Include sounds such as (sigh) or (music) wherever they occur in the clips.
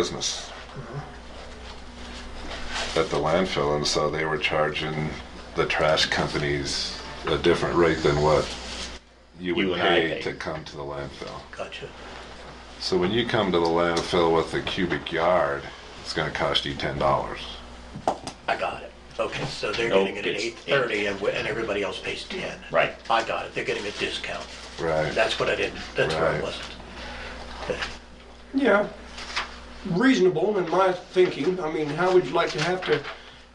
business at the landfill, and so they were charging the trash companies a different rate than what you would You and I pay, pay. to come to the landfill. Gotcha. So when you come to the landfill with a cubic yard, it's going to cost you ten dollars. I got it. Okay, so they're No, getting it at it's- eight thirty and, we- and everybody else pays ten. Right. I got it. They're getting a discount. Right. That's what I didn't, that's where I Right. wasn't. Okay. Yeah, reasonable in my thinking. I mean, how would you like to have to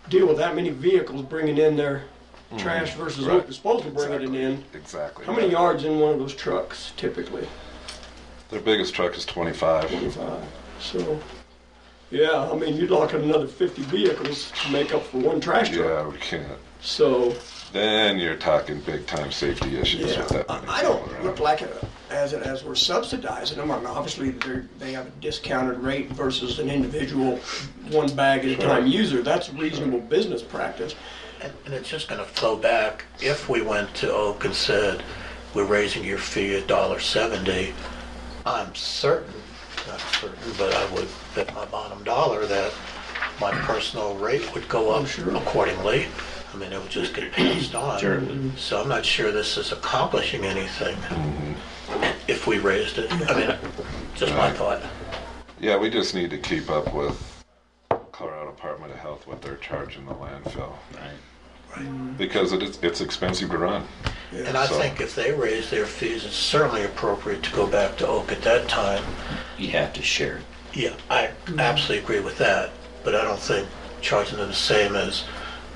deal with that many vehicles bringing in their trash versus what Mm-hmm. Right. they're supposed to bring it in? Exactly. How many yards in one of those trucks typically? Their biggest truck is twenty-five. Twenty-five. So, yeah, I mean, you're locking another fifty vehicles to make up for one trash truck. Yeah, we can't. So, Then you're talking big time safety issues yeah, with that. I many I people don't around. look like it as it as we're subsidizing them. I mean, obviously they they have a discounted rate versus an individual one bag at a time user. That's reasonable business practice. And, and it's just gonna flow back, if we went to Oak and said, we're raising your fee a dollar seventy, I'm certain, not certain, but I would bet my bottom dollar that my personal rate would go up accordingly. I mean, it would just get passed on. Sure it would. So I'm not sure this is accomplishing anything if we raised it. I mean, just my thought. Yeah, we just need to keep up with Colorado Department of Health what they're charging the landfill Right. Mm-hmm. because it is, it's expensive to run. And I So- think if they raise their fees, it's certainly appropriate to go back to Oak at that time. You have to share. it. Yeah, I absolutely agree with that, but I don't think charging them the same as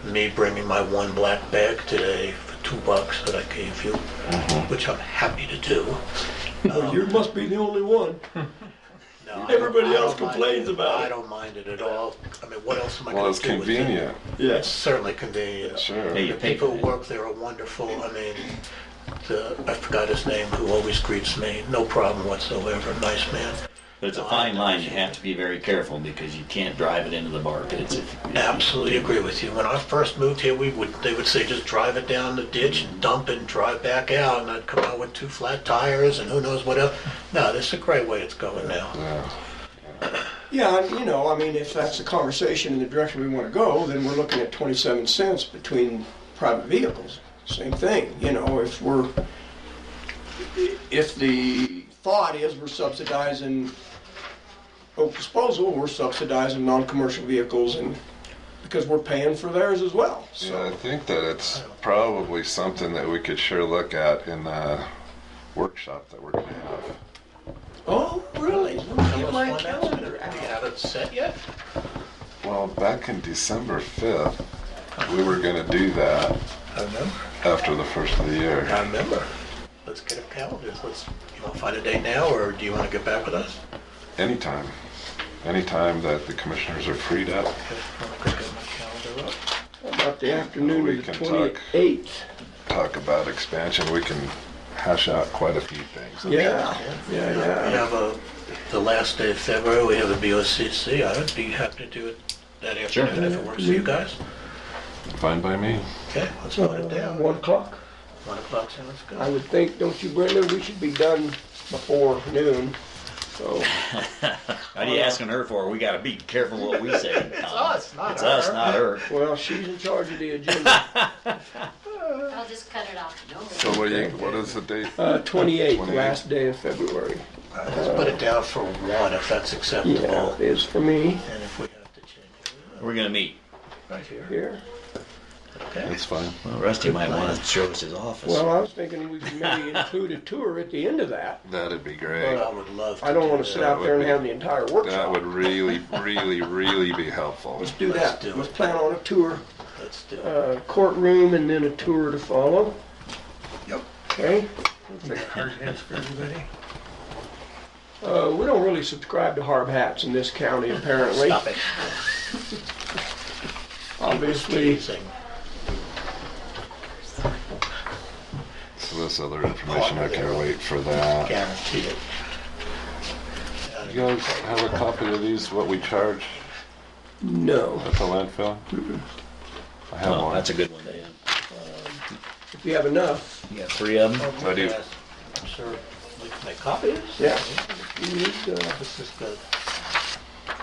me bringing my one black bag today for two bucks that I gave you, Mm-hmm. which I'm happy to do. Well, you must be the only one. No, I don't- Everybody I don't else mind complains about it. I don't mind it at all. I mean, what else am I Well, gonna it's do with it? convenient. It's certainly convenient. Sure. Hey, you The pay people for who it. work there are wonderful. I mean, the, I forgot his name, who always greets me, no problem whatsoever, nice man. There's a fine line. You have to be very careful because you can't drive it into the bar pits. Absolutely agree with you. When I first moved here, we would, they would say, just drive it down the ditch and dump it and drive back out, and I'd come out with two flat tires and who knows what else. No, this is a great way it's going now. Yeah. Yeah, and, you know, I mean, if that's the conversation in the direction we want to go, then we're looking at 27 cents between private vehicles. Same thing, you know, if we're, if the thought is we're subsidizing oak disposal, we're subsidizing non-commercial vehicles and, because we're paying for theirs as well, Yeah, I so. think that it's probably something that we could sure look at in the workshop that we're gonna have. Oh, really? Let me That get was my one that's- calendar out. Do you have it set yet? Well, back in December fifth, we were gonna do that I remember. after the first of the I year. remember. Let's get a calendar. Let's, you want to find a date now, or do you want to get back with us? Anytime, anytime that the commissioners are freed up, Okay, I'm gonna get my calendar up. About the afternoon We of the can talk. 28th. talk about expansion, we can hash out quite a few things. Yeah, yeah, We yeah. have a, the last day of February, we have a BOCC. I'd be happy to do it that Sure. afternoon if it works for you guys. Fine by me. Okay, let's put it down. One o'clock. One o'clock, so let's I go. would think, don't you, Brenda, we should be done before noon, so. What are you asking her for? We got to be careful what we say. (laughs) it's us, not It's us, her. not her. Well, she's in charge of (laughs) the agenda. I'll just cut it off. No worries. So what do you, what is the date? Uh, twenty-eighth, 28th. last day of February. Let's put it down for one if that's Yeah, acceptable. it is for me And if we have to change it, We're gonna meet. right here. here. Okay. It's fine. Well, Rusty might want to show us his office. Well, I was thinking we could maybe include a tour at the end of that. That'd be Uh, I great. would love to. I don't do wanna that. sit out there and have the entire That workshop. would really, really, really be helpful. Let's do Let's that. do Let's it. plan on a tour, Let's do it. uh, courtroom and then a tour to follow. Yep. Okay? Hard hats for everybody. Uh, we don't really subscribe to hard hats in (laughs) this county, apparently. Stop it. Obviously, Teasing. So this other information, I can wait for that. Guarantee it. You guys have a copy of these, what we charge no. at the landfill? I have Oh, one. that's a good one. Dan. If you have enough, You got three of them. I do. Yes. I'm sure we can make copies. Yeah. You need, uh, This is good.